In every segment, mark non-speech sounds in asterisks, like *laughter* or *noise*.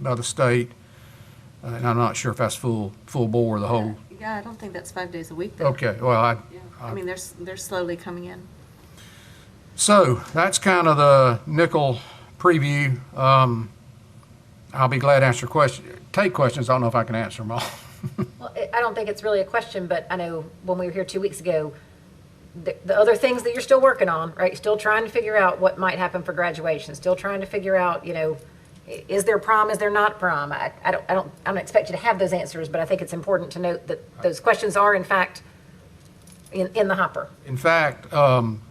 by the state, uh, and I'm not sure if that's full, full bore, the whole, Yeah, I don't think that's five days a week. though. okay, well, I, Yeah. I- I mean, they're, s- they're slowly coming in. so, that's kind of the nickel preview. Um, I'll be glad to answer questions, take questions, I don't know if I can answer them all. Well, I- I don't think it's really a question, but I know when we were here two weeks ago, the, the other things that you're still working on, right? Still trying to figure out what might happen for graduation, still trying to figure out, you know, i- is there prom, is there not prom? I, I don't, I don't, I don't expect you to have those answers, but I think it's important to note that those questions are in fact in, in the hopper. In fact, um,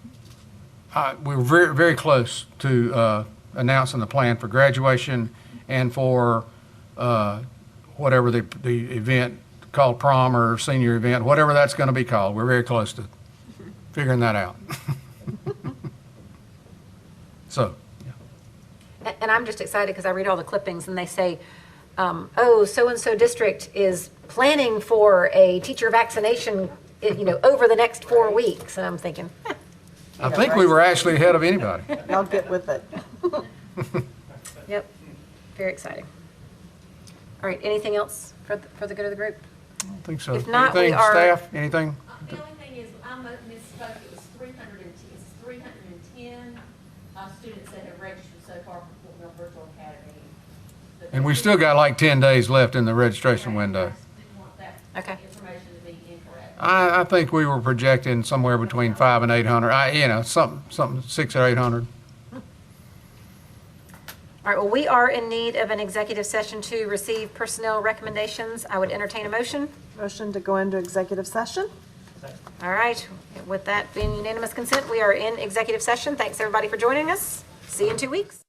I, we were very, very close to, uh, announcing the plan for graduation and for, uh, whatever the, the event called prom or senior event, whatever that's gonna be called, we're very close to figuring that out. *laughs* So, yeah. And- And I'm just excited because I read all the clippings and they say, um, oh, so-and-so district is planning for a teacher vaccination, i- you know, over the next four weeks. And I'm thinking, "Huh, I think we were actually ahead of *laughs* anybody. Y'all get with it. yep, very exciting. All right, anything else for, the- for the good of the group? I think so. If not, we Anything, are- staff, anything? Uh, The only thing is, I mo- misspoke, it was three hundred and ten, it's three hundred and ten, uh, students that have registered so far for Fort Mill Virtual Academy. But And we we still got like 10 days left in the registration didn't window. want that Okay. Information to be incorrect. I, I think we were projecting somewhere between five and eight hundred, I, you know, something, something, six or eight hundred. All right, well, we are in need of an executive session to receive personnel recommendations. I would entertain a motion. Motion to go into executive session? All right, with that being unanimous consent, we are in executive session. Thanks, everybody, for joining us. See you in two weeks.